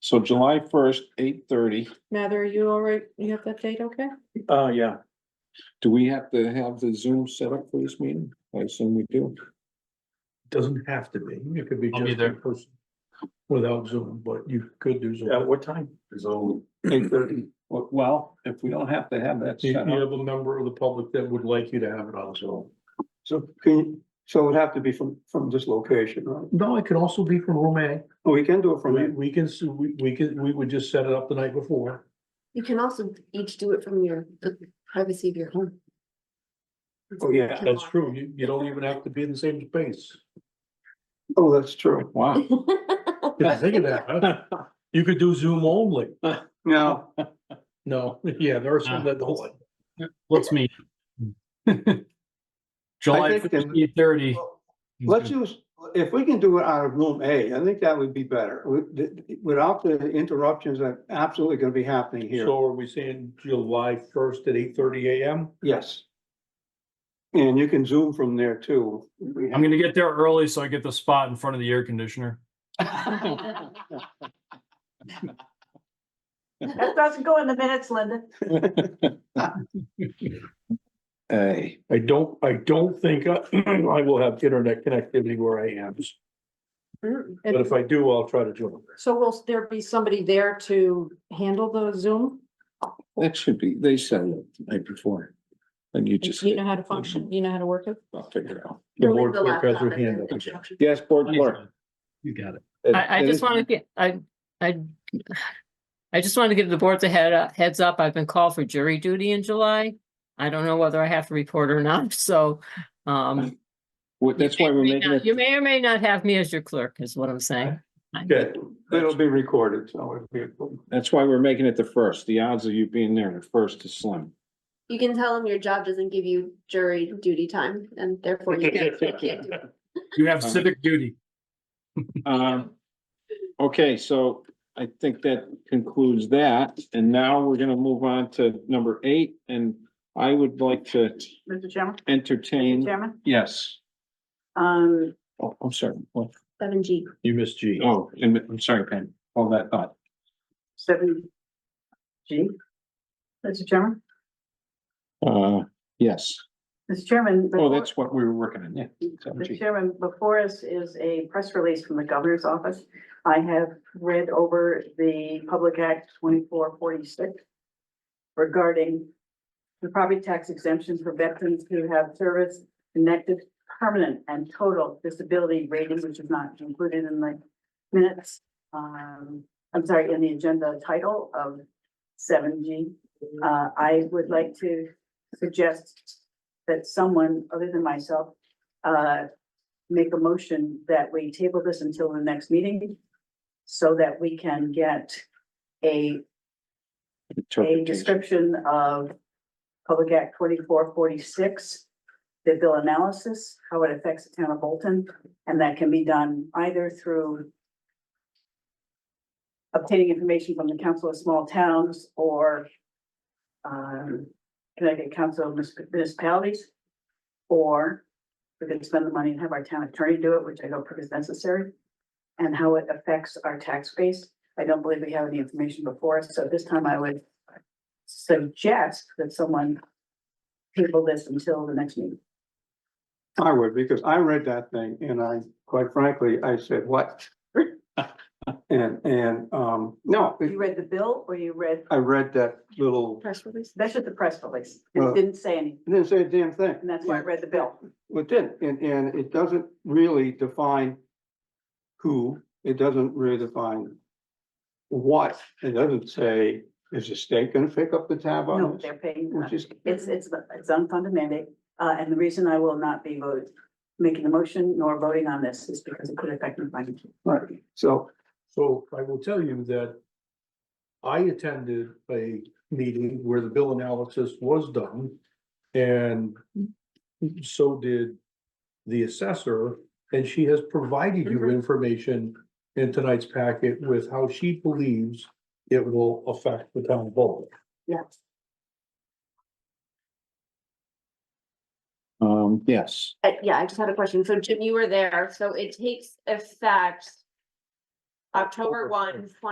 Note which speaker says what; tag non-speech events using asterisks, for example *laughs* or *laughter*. Speaker 1: So July first, eight thirty,
Speaker 2: Mather, you all right? You have that date, okay?
Speaker 3: Uh, yeah,
Speaker 1: do we have to have the Zoom set up for this meeting? I assume we do.
Speaker 4: Doesn't have to be, it could be
Speaker 5: I'll be
Speaker 4: just
Speaker 5: there.
Speaker 4: in person. Without Zoom, but you could do Zoom.
Speaker 3: at what time?
Speaker 4: Zoom.
Speaker 1: Eight thirty. Well, if we don't have to have that
Speaker 4: You you
Speaker 1: set up,
Speaker 4: have a member of the public that would like you to have it on Zoom.
Speaker 3: So can, you- so it would have to be from, from this location, right?
Speaker 4: No, it could also be from room A.
Speaker 3: Or Oh, we can do it from
Speaker 4: We,
Speaker 3: here.
Speaker 4: we can, s- we, we can, we would just set it up the night before.
Speaker 6: You can also each do it from your, the privacy of your home.
Speaker 3: Oh, yeah.
Speaker 4: That's
Speaker 6: *laughs*
Speaker 4: true. You, you don't even have to be in the same space.
Speaker 3: Oh, that's true.
Speaker 1: wow,
Speaker 4: Didn't think of that, huh? *laughs* You could do Zoom only.
Speaker 3: Now,
Speaker 4: No, *laughs* yeah, there are some that don't like.
Speaker 5: Let's meet.
Speaker 3: *laughs* I
Speaker 5: July
Speaker 3: think then-
Speaker 5: fifteen thirty.
Speaker 3: let's use, if we can do it out of room A, I think that would be better. With- th- Without the interruptions that absolutely gonna be happening here.
Speaker 4: So are we saying July first at eight thirty AM?
Speaker 3: Yes. And you can zoom from there too. if we
Speaker 5: I'm gonna get there early so I get the spot in front of the air conditioner.
Speaker 3: have-
Speaker 7: That doesn't go in the minutes, Linda.
Speaker 1: hey,
Speaker 4: I don't, I don't think I, *clears throat* I will have internet connectivity where I am, but
Speaker 2: And
Speaker 4: if I do, I'll try to join.
Speaker 2: so will there be somebody there to handle the Zoom?
Speaker 1: that should be, they set it up the night before. And you just,
Speaker 2: You know how to function, you know how to work it?
Speaker 1: I'll figure it out.
Speaker 4: The
Speaker 6: Leave
Speaker 4: board
Speaker 6: the
Speaker 4: clerk has
Speaker 6: laptop
Speaker 4: her
Speaker 6: and
Speaker 4: hand
Speaker 6: then
Speaker 4: up again.
Speaker 6: instructions.
Speaker 1: Yes, board clerk.
Speaker 5: You got it.
Speaker 8: I, I just want to get, I, I, I just wanted to give the boards a head, up- heads up. I've been called for jury duty in July. I don't know whether I have to report or not, *laughs* so, um.
Speaker 1: Well, that's why we're
Speaker 8: may
Speaker 1: making
Speaker 8: not- You
Speaker 1: it,
Speaker 8: may or may not have me as your clerk, is what I'm saying.
Speaker 4: Okay,
Speaker 3: It'll be recorded, so it'll be.
Speaker 1: that's why we're making it the first. The odds of you being there the first is slim.
Speaker 6: You can tell them your job doesn't give you jury duty time and therefore you can't, you can't do it.
Speaker 5: You have civic duty.
Speaker 1: Um, okay, so I think that concludes that, and now we're gonna move on to number eight, and I would like to
Speaker 7: Mr. Chairman, Mr.
Speaker 1: entertain,
Speaker 7: Chairman,
Speaker 1: yes.
Speaker 7: um,
Speaker 1: Oh, I'm sorry, What?
Speaker 6: Seven G.
Speaker 4: you missed G.
Speaker 1: oh, and I'm sorry, Pam, all that thought,
Speaker 7: seven G. Mr. Chairman,
Speaker 1: uh, yes,
Speaker 7: Mr. Chairman.
Speaker 1: oh,
Speaker 7: before-
Speaker 1: that's what we were working on, yeah. Seven
Speaker 7: Mr.
Speaker 1: G.
Speaker 7: Chairman, before us is a press release from the governor's office. I have read over the Public Act twenty-four forty-six regarding the property tax exemption for veterans who have service connected permanent and total disability rating, which is not included in the minutes. Um, I'm sorry, in the agenda title of seven G. Uh, I would like to suggest that someone other than myself uh, make a motion that we table this until the next meeting so that we can get a, a
Speaker 1: Interpretation.
Speaker 7: description of Public Act twenty-four forty-six, the bill analysis, how it affects the town of Bolton, and that can be done either through obtaining information from the Council of Small Towns or um, Connecticut Council of Municip- Municipalities, or we could spend the money and have our town attorney do it, which I don't think is necessary, and how it affects our tax base. I don't believe we have any information before us, so at this time I would suggest that someone table this until the next meeting.
Speaker 3: I would, because I read that thing and I, quite frankly, I said, what? *laughs* And, and, um, no, it-
Speaker 7: You read the bill or you read,
Speaker 3: I read that little,
Speaker 6: Press release.
Speaker 7: that's just the press release.
Speaker 3: Well-
Speaker 7: It didn't say anything,
Speaker 3: it didn't say a damn thing.
Speaker 7: and that's why I read the bill.
Speaker 3: Well, it did, and, and it doesn't really define who, it doesn't really define what, it doesn't say, is the state gonna pick up the tab
Speaker 7: No,
Speaker 3: on this?
Speaker 7: they're paying. uh,
Speaker 3: Which is,
Speaker 7: It's, it's, it's unfunded mandate, uh, and the reason I will not be voting, making the motion nor voting on this is because it could affect my financial.
Speaker 3: right, so,
Speaker 4: So I will tell you that I attended a meeting where the bill analysis was done. And so did the assessor, and she has provided you
Speaker 6: Mhm.
Speaker 4: information in tonight's packet with how she believes it will affect the town vote.
Speaker 7: Yes.
Speaker 1: Um, yes,
Speaker 6: Uh, yeah, I just had a question. So Jim, you were there, so it takes effect October
Speaker 4: October
Speaker 6: one,